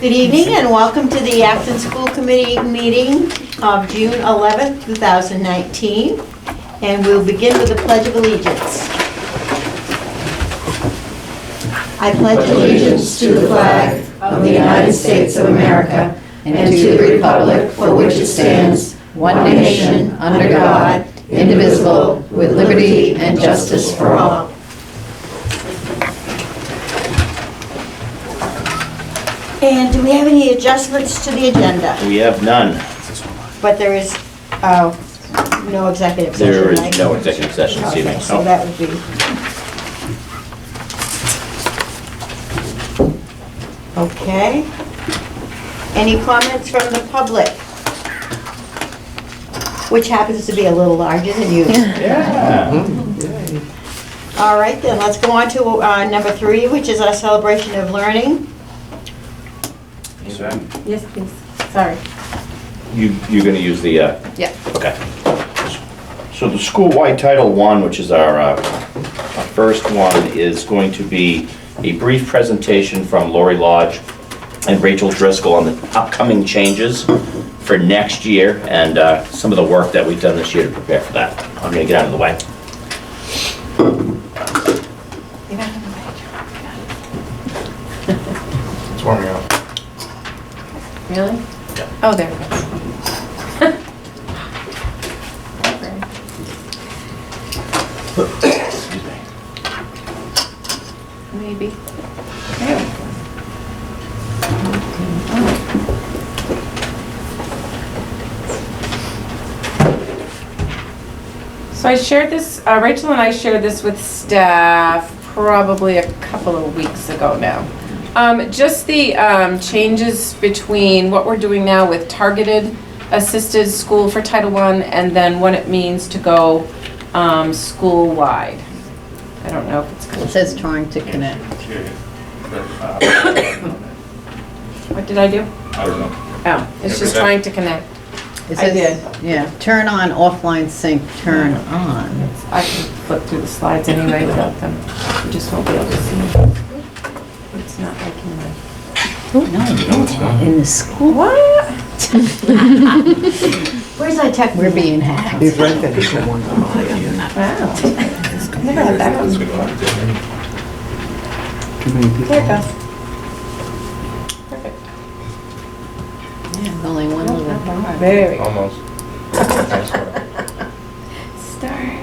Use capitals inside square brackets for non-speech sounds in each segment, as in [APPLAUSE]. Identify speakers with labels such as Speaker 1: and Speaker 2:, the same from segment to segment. Speaker 1: Good evening and welcome to the Acton School Committee meeting of June 11th, 2019. And we'll begin with the Pledge of Allegiance. I pledge
Speaker 2: allegiance to the flag of the United States of America and to the republic for which it stands, one nation, under God, indivisible, with liberty and justice for all.
Speaker 1: And do we have any adjustments to the agenda?
Speaker 3: We have none.
Speaker 1: But there is, oh, no executive session,
Speaker 3: There
Speaker 1: right?
Speaker 3: is no executive session this evening.
Speaker 1: Okay, so that would be. Okay. Any comments from the public? Which happens to be a little larger than
Speaker 4: [LAUGHS]
Speaker 1: you.
Speaker 3: Yeah.
Speaker 1: All right, then, let's go on to uh, number three, which is our celebration of learning.
Speaker 5: Yes, please.
Speaker 1: Sorry.
Speaker 3: You, you're gonna use the, uh,
Speaker 5: Yeah.
Speaker 3: okay. So the school-wide Title I, which is our, uh, our first one, is going to be a brief presentation from Lori Lodge and Rachel Driscoll on the upcoming changes for next year and, uh, some of the work that we've done this year to prepare for that. I'm gonna get out of the way.
Speaker 2: It's warming up.
Speaker 5: Really? Oh, there it goes. Maybe. There we go. So I shared this, uh, Rachel and I shared this with staff probably a couple of weeks ago now. Um, Just the um, changes between what we're doing now with targeted assisted school for Title I and then what it means to go um, school-wide. I don't know if it's,
Speaker 4: It says trying to connect.
Speaker 5: what did I do?
Speaker 6: I don't know.
Speaker 5: Oh, it's just
Speaker 6: Yeah, but that-
Speaker 5: trying to connect.
Speaker 4: It
Speaker 5: I did.
Speaker 4: says- Yeah, turn on offline sync, turn on.
Speaker 5: I can flip through the slides anyway without them. You just won't be able to see. It's not like in my.
Speaker 4: In the school,
Speaker 5: What?
Speaker 1: Where's our tech?
Speaker 4: we're being hacked.
Speaker 5: Wow. Never had that one. There it goes. Perfect.
Speaker 4: Yeah, Only one little.
Speaker 5: There we go.
Speaker 6: Almost. I swear.
Speaker 5: Start.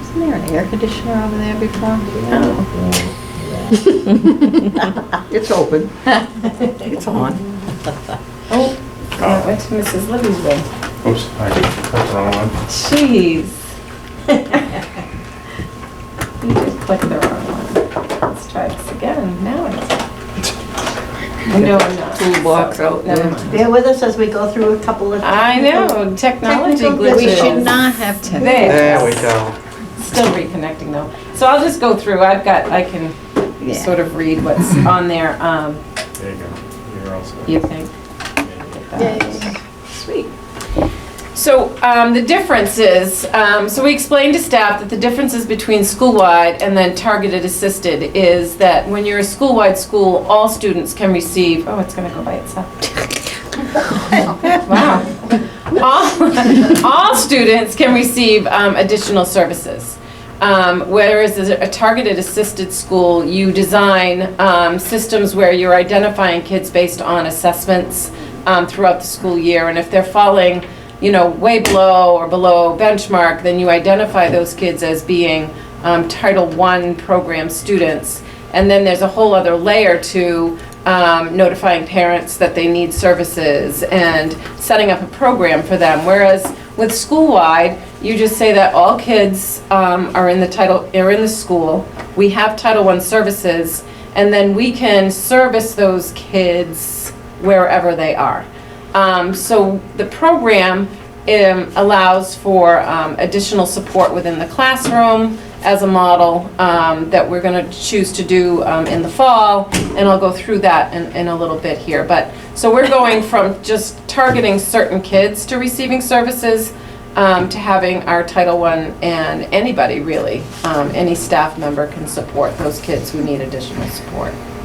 Speaker 4: Isn't there an air conditioner over there before?
Speaker 7: It's open. It's on.
Speaker 5: Oh, that went to Mrs. Libby's way.
Speaker 6: Oops, I did, that's the wrong one.
Speaker 5: Jeez. [LAUGHS] You just clicked the wrong one. Let's try this again. Now it's.
Speaker 4: [LAUGHS]
Speaker 5: No, I'm not.
Speaker 7: Toolbox out
Speaker 5: Never
Speaker 7: there.
Speaker 5: mind.
Speaker 1: Bear with us as we go through a couple of.
Speaker 5: I know, technology
Speaker 1: Technical
Speaker 5: glitches.
Speaker 4: We should not have to.
Speaker 5: There,
Speaker 7: There we go.
Speaker 5: still reconnecting though. So I'll just go through, I've got, I can
Speaker 4: Yeah.
Speaker 5: sort of read what's on there, um,
Speaker 6: There you go. You're all set.
Speaker 5: you think. Sweet. So um, the difference is, um, so we explained to staff that the differences between school-wide and then targeted assisted is that when you're a school-wide school, all students can receive, oh, it's gonna go by itself. Wow. All, all students can receive um, additional services. Um, Whereas as a targeted assisted school, you design um, systems where you're identifying kids based on assessments um, throughout the school year. And if they're falling, you know, way below or below benchmark, then you identify those kids as being um, Title I program students. And then there's a whole other layer to um, notifying parents that they need services and setting up a program for them. Whereas with school-wide, you just say that all kids um, are in the title, are in the school, we have Title I services, and then we can service those kids wherever they are. Um, So the program um, allows for um, additional support within the classroom as a model um, that we're going to choose to do um, in the fall, and I'll go through that in in a little bit here. But, so we're going from just targeting certain kids to receiving services um, to having our Title I and anybody really, um, any staff member can support those kids who need additional support.